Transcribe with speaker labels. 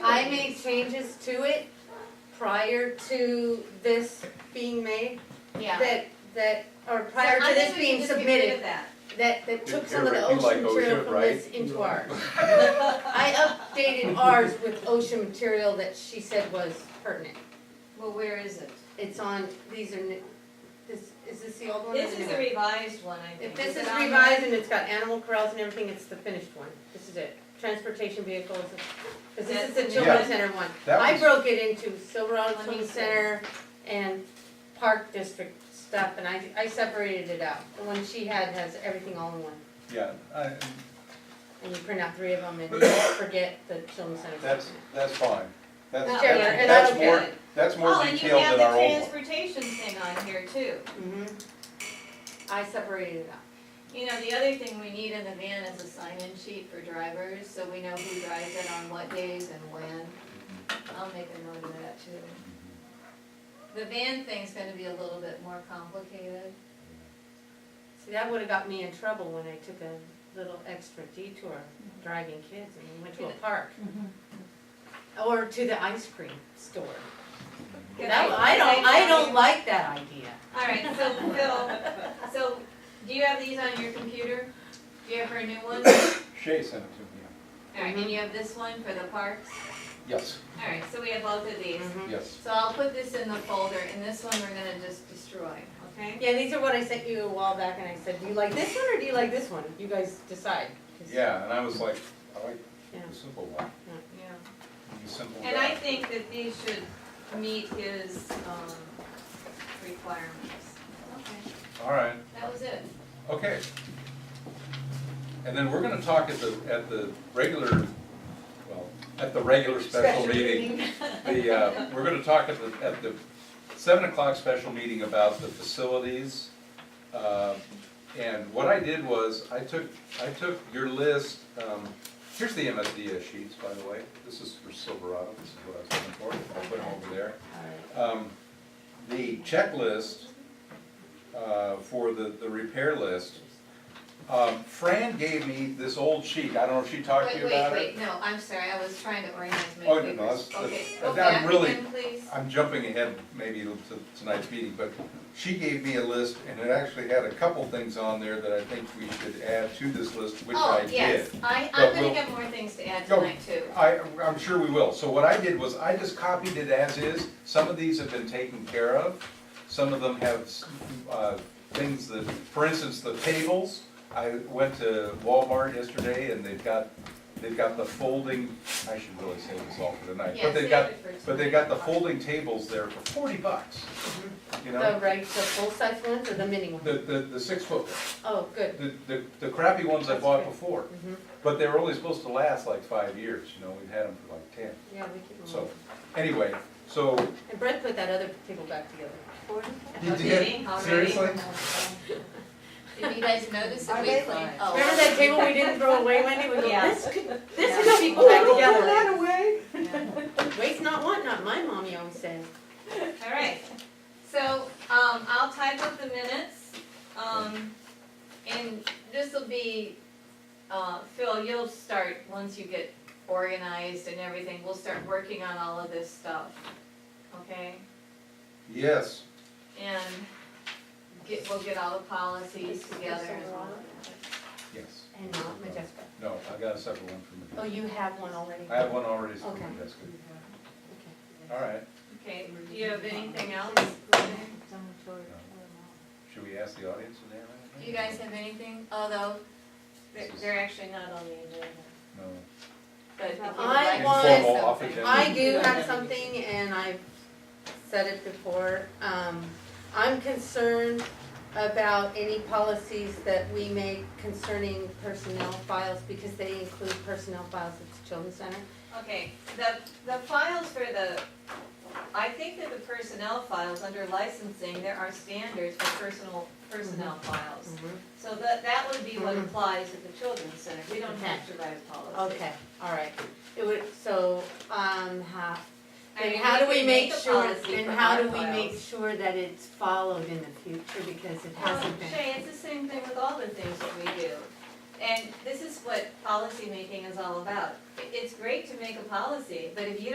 Speaker 1: make changes to it prior to this being made?
Speaker 2: Yeah.
Speaker 1: That, that, or
Speaker 2: So
Speaker 1: prior
Speaker 2: I
Speaker 1: to this
Speaker 2: think we
Speaker 1: being
Speaker 2: can just get rid of
Speaker 1: submitted,
Speaker 2: that.
Speaker 1: that, that took
Speaker 3: You-
Speaker 1: some of the
Speaker 3: you like
Speaker 1: ocean material
Speaker 3: OSHA,
Speaker 1: from
Speaker 3: right?
Speaker 1: this into ours. I updated ours with ocean material that she said was pertinent.
Speaker 2: Well, where is it?
Speaker 1: It's on, these are, n- this, is this the old one? or
Speaker 2: This
Speaker 1: the
Speaker 2: is
Speaker 1: new
Speaker 2: the
Speaker 1: one?
Speaker 2: revised one, I think.
Speaker 1: If this is
Speaker 2: it on
Speaker 1: revised and it's got animal corrals and everything, it's the finished one, this is it, transportation vehicles, cause this is the
Speaker 2: That's-
Speaker 1: children's center one.
Speaker 3: That
Speaker 1: I
Speaker 3: was-
Speaker 1: broke it into Silverado
Speaker 2: Let me
Speaker 1: Children's
Speaker 2: see.
Speaker 1: Center and Park District stuff, and I, I separated it out. The one she had has everything all in one,
Speaker 3: Yeah, I-
Speaker 1: and you print out three of them and you forget the children's center.
Speaker 3: that's, that's fine. That's,
Speaker 2: No.
Speaker 1: Sure,
Speaker 3: that's,
Speaker 1: and I
Speaker 3: that's
Speaker 1: don't
Speaker 3: more,
Speaker 1: get it.
Speaker 3: that's more
Speaker 2: Oh, and you
Speaker 3: detailed
Speaker 2: have
Speaker 3: than
Speaker 2: the
Speaker 3: our old one.
Speaker 2: transportation thing on here too.
Speaker 1: Mhm. I separated it out.
Speaker 2: You know, the other thing we need in the van is a sign-in sheet for drivers, so we know who drives it on what days and when. I'll make a note of that too. The van thing's gonna be a little bit more complicated.
Speaker 1: See, that would've got me in trouble when I took a little extra detour, driving kids, and we went to a park. Or to the ice cream store.
Speaker 2: Can
Speaker 1: That- I don't, I don't like that idea.
Speaker 2: All right, so Phil, so do you have these on your computer? Do you have her new one? All
Speaker 3: Shay sent it to me.
Speaker 2: right, and you have this one for the parks?
Speaker 3: Yes,
Speaker 2: All right, so we have both of these.
Speaker 3: yes.
Speaker 2: So I'll put this in the folder and this one we're gonna just destroy, okay?
Speaker 1: Yeah, these are what I sent you a while back, and I said, do you like this one or do you like this one? You guys decide. 'cause-
Speaker 3: Yeah, and I was like, I like
Speaker 1: Yeah.
Speaker 3: the simple one,
Speaker 2: Yeah.
Speaker 3: the simple
Speaker 2: And I
Speaker 3: guy.
Speaker 2: think that these should meet his, um, requirements. Okay,
Speaker 3: All right,
Speaker 2: that was it.
Speaker 3: okay. And then we're gonna talk at the, at the regular, well, at the regular special meeting. The, uh, we're gonna talk at the, at the seven o'clock special meeting about the facilities. Uh, And what I did was, I took, I took your list, um, here's the MSDS sheets, by the way. This is for Silverado, this is what I was looking for, I'll put them over there. Um, The checklist uh, for the, the repair list, um, Fran gave me this old sheet, I don't know if she talked to
Speaker 2: Wait,
Speaker 3: you about
Speaker 2: wait,
Speaker 3: it.
Speaker 2: wait, no, I'm sorry, I was trying to organize my
Speaker 3: Oh, no,
Speaker 2: papers.
Speaker 3: that's-
Speaker 2: Okay,
Speaker 3: that's-
Speaker 2: go
Speaker 3: I'm
Speaker 2: back
Speaker 3: really-
Speaker 2: again, please.
Speaker 3: I'm jumping ahead maybe to tonight's meeting, but she gave me a list and it actually had a couple things on there that I think we should add to this list, which I
Speaker 2: Oh,
Speaker 3: did.
Speaker 2: yes, I,
Speaker 3: But
Speaker 2: I'm gonna
Speaker 3: we'll-
Speaker 2: have more things to add
Speaker 3: Go.
Speaker 2: tonight too.
Speaker 3: I, I'm sure we will. So what I did was I just copied it as is. Some of these have been taken care of. Some of them have, uh, things that, for instance, the tables. I went to Walmart yesterday and they've got, they've got the folding, I should really save this all for tonight.
Speaker 2: Yeah,
Speaker 3: But they've
Speaker 2: save
Speaker 3: got,
Speaker 2: it for
Speaker 3: but they've got the
Speaker 2: tonight.
Speaker 3: folding tables there for forty bucks, you
Speaker 1: The
Speaker 3: know?
Speaker 1: reg, the full-size ones or the mini
Speaker 3: The,
Speaker 1: ones?
Speaker 3: the, the six foot,
Speaker 1: Oh, good.
Speaker 3: the, the- the crappy ones I
Speaker 1: That's
Speaker 3: bought
Speaker 1: good.
Speaker 3: before.
Speaker 1: Mhm.
Speaker 3: But they were only supposed to last like five years, you know, we've had them for like ten.
Speaker 1: Yeah, we keep them
Speaker 3: So,
Speaker 1: all.
Speaker 3: anyway, so.
Speaker 1: And Brett put that other table back together.
Speaker 3: You
Speaker 2: Okay,
Speaker 3: did?
Speaker 2: already?
Speaker 3: Seriously?
Speaker 2: Did you guys notice that
Speaker 4: Are
Speaker 2: we
Speaker 4: they
Speaker 2: cleaned?
Speaker 4: live?
Speaker 2: oh,
Speaker 1: Remember that table we didn't throw away, Wendy? We go,
Speaker 4: Yeah.
Speaker 1: this could, this
Speaker 2: Yeah.
Speaker 1: could be
Speaker 2: Oh,
Speaker 1: put back together.
Speaker 2: don't throw
Speaker 4: away.
Speaker 2: yeah.
Speaker 1: Waste not, want not, my mommy always says.
Speaker 2: All right, so, um, I'll type up the minutes, um, and this'll be, uh, Phil, you'll start, once you get organized and everything, we'll start working on all of this stuff, okay?
Speaker 3: Yes,
Speaker 2: And get, we'll get all the policies together and all
Speaker 3: yes.
Speaker 1: And not Majeska.
Speaker 3: No, I got a separate one from
Speaker 1: Oh, you have one already?
Speaker 3: I have one already, so
Speaker 1: Okay.
Speaker 3: that's good. All right,
Speaker 2: Okay, do you have anything else?
Speaker 3: should we ask the audience if they have
Speaker 2: Do you
Speaker 3: anything?
Speaker 2: guys have anything, although, they're, they're actually not on the agenda,
Speaker 3: No.
Speaker 2: but if you would
Speaker 1: I
Speaker 2: like to
Speaker 1: want-
Speaker 2: say
Speaker 3: Informal off
Speaker 2: something.
Speaker 3: agenda.
Speaker 1: I do have something, and I've said it before, um, I'm concerned about any policies that we make concerning personnel files, because they include personnel files at the children's center.
Speaker 2: Okay, the, the files for the, I think that the personnel files, under licensing, there are standards for personal, personnel
Speaker 1: Mm-hmm.
Speaker 2: files. So that, that would be what
Speaker 1: Mhm.
Speaker 2: applies at the children's center, we don't have to write a policy.
Speaker 1: Okay, all right, it would, so, um, how,
Speaker 2: I mean,
Speaker 1: and how do we
Speaker 2: could
Speaker 1: make
Speaker 2: a
Speaker 1: sure,
Speaker 2: policy
Speaker 1: and
Speaker 2: for
Speaker 1: how
Speaker 2: our
Speaker 1: do we make
Speaker 2: files.
Speaker 1: sure that it's followed in the future, because it
Speaker 2: Um,
Speaker 1: hasn't been.
Speaker 2: Shay, it's the same thing with all the things that we do. And this is what policymaking is all about. It- It's great to make a policy, but if you